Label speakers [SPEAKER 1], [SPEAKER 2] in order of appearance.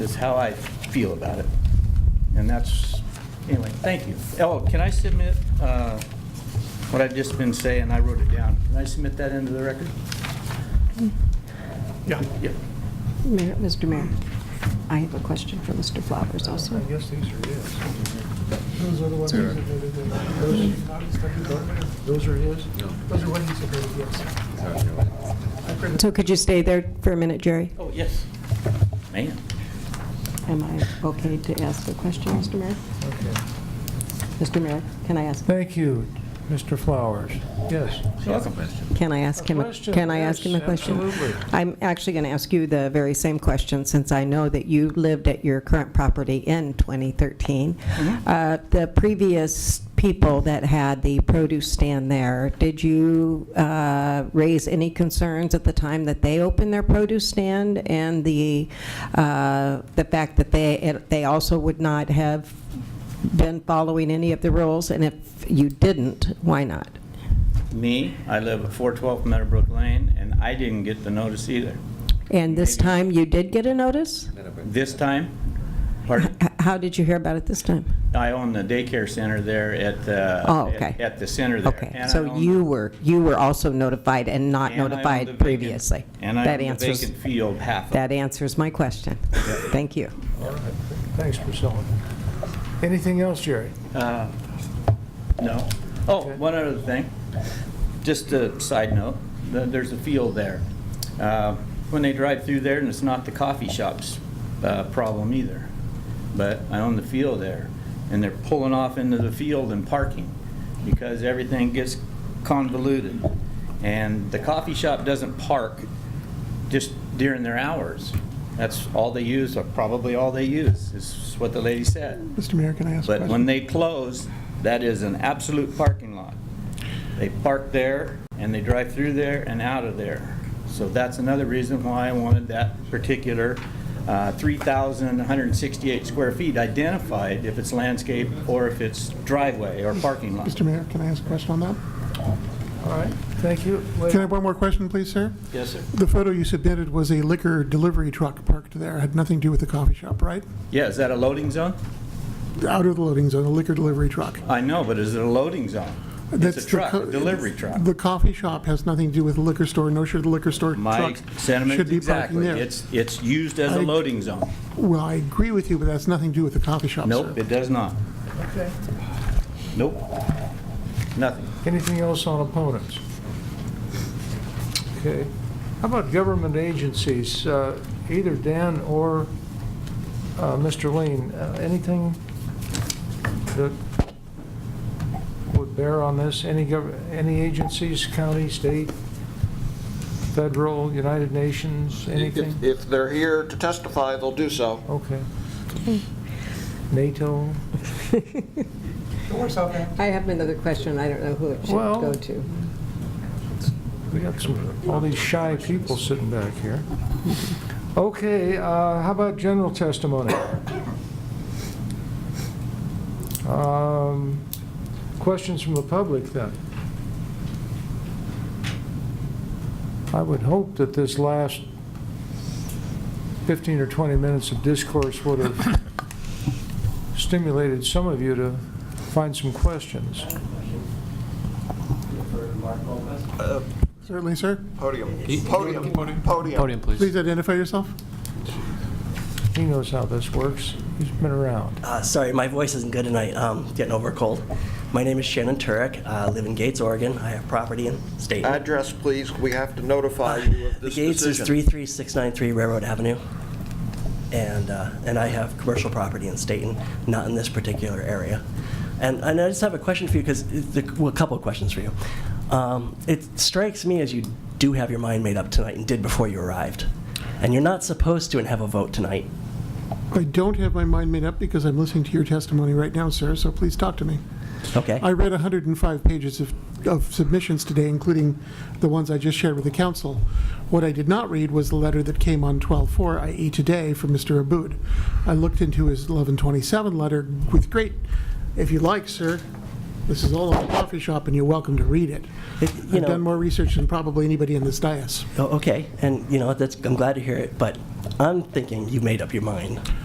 [SPEAKER 1] is how I feel about it. And that's, anyway, thank you. Oh, can I submit uh, what I've just been saying? I wrote it down. Can I submit that into the record?
[SPEAKER 2] Yeah.
[SPEAKER 1] Yep.
[SPEAKER 3] Mayor- Mr. Mayor, I have a question for Mr. Flowers also.
[SPEAKER 2] I guess these are his. Those are the ones that are Those those are his? Those are what he submitted, yes. I printed-
[SPEAKER 3] So could you stay there for a minute, Jerry?
[SPEAKER 1] Oh, yes. Man.
[SPEAKER 3] Am I okay to ask a question, Mr. Mayor?
[SPEAKER 2] okay.
[SPEAKER 3] Mr. Mayor, can I ask,
[SPEAKER 2] Thank you, Mr. Flowers. Yes.
[SPEAKER 3] can I ask him,
[SPEAKER 2] A
[SPEAKER 3] a-
[SPEAKER 2] question,
[SPEAKER 3] can I ask him a
[SPEAKER 2] yes,
[SPEAKER 3] question?
[SPEAKER 2] absolutely.
[SPEAKER 3] I'm actually going to ask you the very same question, since I know that you lived at your current property in 2013.
[SPEAKER 2] Mm-hmm.
[SPEAKER 3] Uh, The previous people that had the produce stand there, did you uh, raise any concerns at the time that they opened their produce stand? And the, uh, the fact that they, it- they also would not have been following any of the rules? And if you didn't, why not?
[SPEAKER 1] Me, I live at 412 Meadowbrook Lane, and I didn't get the notice either.
[SPEAKER 3] And this
[SPEAKER 1] Maybe-
[SPEAKER 3] time, you did get a notice?
[SPEAKER 1] This time, pardon?
[SPEAKER 3] H- How did you hear about it this time?
[SPEAKER 1] I own the daycare center there at the.
[SPEAKER 3] Oh, okay.
[SPEAKER 1] At the center there.
[SPEAKER 3] Okay,
[SPEAKER 1] And I
[SPEAKER 3] so
[SPEAKER 1] own-
[SPEAKER 3] you were, you were also notified and not
[SPEAKER 1] and I own the
[SPEAKER 3] notified
[SPEAKER 1] vacant-
[SPEAKER 3] previously?
[SPEAKER 1] And I
[SPEAKER 3] That
[SPEAKER 1] own the
[SPEAKER 3] answers-
[SPEAKER 1] vacant field half of it.
[SPEAKER 3] That answers my question. Thank you.
[SPEAKER 2] All right. Thanks, Priscilla. Anything else, Jerry?
[SPEAKER 1] Uh, No. Oh,
[SPEAKER 2] Okay.
[SPEAKER 1] one other thing, just a side note, th- there's a field there. Uh, When they drive through there, and it's not the coffee shop's uh, problem either, but I own the field there, and they're pulling off into the field and parking because everything gets convoluted. And the coffee shop doesn't park just during their hours. That's all they use, or probably all they use, is what the lady said.
[SPEAKER 4] Mr. Mayor, can I ask a
[SPEAKER 1] But when
[SPEAKER 4] question?
[SPEAKER 1] they close, that is an absolute parking lot. They park there, and they drive through there and out of there. So that's another reason why I wanted that particular uh, 3,168 square feet identified, if it's landscape or if it's driveway or parking lot.
[SPEAKER 4] Mr. Mayor, can I ask a question on that?
[SPEAKER 2] All right, thank you.
[SPEAKER 4] Can I have one more question, please, sir?
[SPEAKER 1] Yes, sir.
[SPEAKER 4] The photo you submitted was a liquor delivery truck parked there, had nothing to do with the coffee shop, right?
[SPEAKER 1] Yeah, is that a loading zone?
[SPEAKER 4] Out of the loading zone, a liquor delivery truck.
[SPEAKER 1] I know, but is it a loading zone?
[SPEAKER 4] That's
[SPEAKER 1] It's a
[SPEAKER 4] the
[SPEAKER 1] truck,
[SPEAKER 4] co-
[SPEAKER 1] a delivery truck.
[SPEAKER 4] The coffee shop has nothing to do with the liquor store, no sure the liquor store
[SPEAKER 1] My
[SPEAKER 4] truck
[SPEAKER 1] sentiment
[SPEAKER 4] should
[SPEAKER 1] is
[SPEAKER 4] be parking
[SPEAKER 1] exactly.
[SPEAKER 4] there.
[SPEAKER 1] It's, it's used as a
[SPEAKER 4] I-
[SPEAKER 1] loading zone.
[SPEAKER 4] Well, I agree with you, but that's nothing to do with the coffee shop, sir.
[SPEAKER 1] Nope, it does not.
[SPEAKER 2] Okay.
[SPEAKER 1] Nope. Nothing.
[SPEAKER 2] Anything else on opponents? Okay. How about government agencies? Uh, Either Dan or uh, Mr. Lean, uh, anything that would bear on this? Any gov, any agencies, county, state, federal, United Nations, anything?
[SPEAKER 5] If if they're here to testify, they'll do so.
[SPEAKER 2] Okay. NATO?
[SPEAKER 3] I have another question, I don't know who it should
[SPEAKER 2] Well-
[SPEAKER 3] go to.
[SPEAKER 2] We got some, all these shy people sitting back here. Okay, uh, how about general testimony? Um, Questions from the public, then? I would hope that this last 15 or 20 minutes of discourse would have stimulated some of you to find some questions.
[SPEAKER 4] Certainly, sir.
[SPEAKER 5] Podium, podium, podium.
[SPEAKER 6] Podium, please.
[SPEAKER 4] Please identify yourself.
[SPEAKER 2] He knows how this works. He's been around.
[SPEAKER 7] Uh, sorry, my voice isn't good tonight. Um, getting over a cold. My name is Shannon Turek. I live in Gates, Oregon. I have property in State.
[SPEAKER 5] Address, please, we have to notify you of
[SPEAKER 7] the
[SPEAKER 5] this
[SPEAKER 7] Gates is
[SPEAKER 5] decision.
[SPEAKER 7] 33693 Railroad Avenue, and uh, and I have commercial property in Staten, not in this particular area. And and I just have a question for you because well, a couple of questions for you. Um, it strikes me as you do have your mind made up tonight and did before you arrived, and you're not supposed to and have a vote tonight.
[SPEAKER 4] I don't have my mind made up because I'm listening to your testimony right now, sir, so please talk to me.
[SPEAKER 7] Okay.
[SPEAKER 4] I read 105 pages of, of submissions today, including the ones I just shared with the council. What I did not read was the letter that came on 12/4, i.e. e, today, from Mr. Abud. I looked into his 11/27 letter with great, if you like, sir, This is all on the coffee shop, and you're welcome to read it.
[SPEAKER 7] It- you
[SPEAKER 4] I've
[SPEAKER 7] know-
[SPEAKER 4] done more research than probably anybody in this dais.
[SPEAKER 7] Oh, okay, and you know, that's, I'm glad to hear it, but I'm thinking you made up your mind.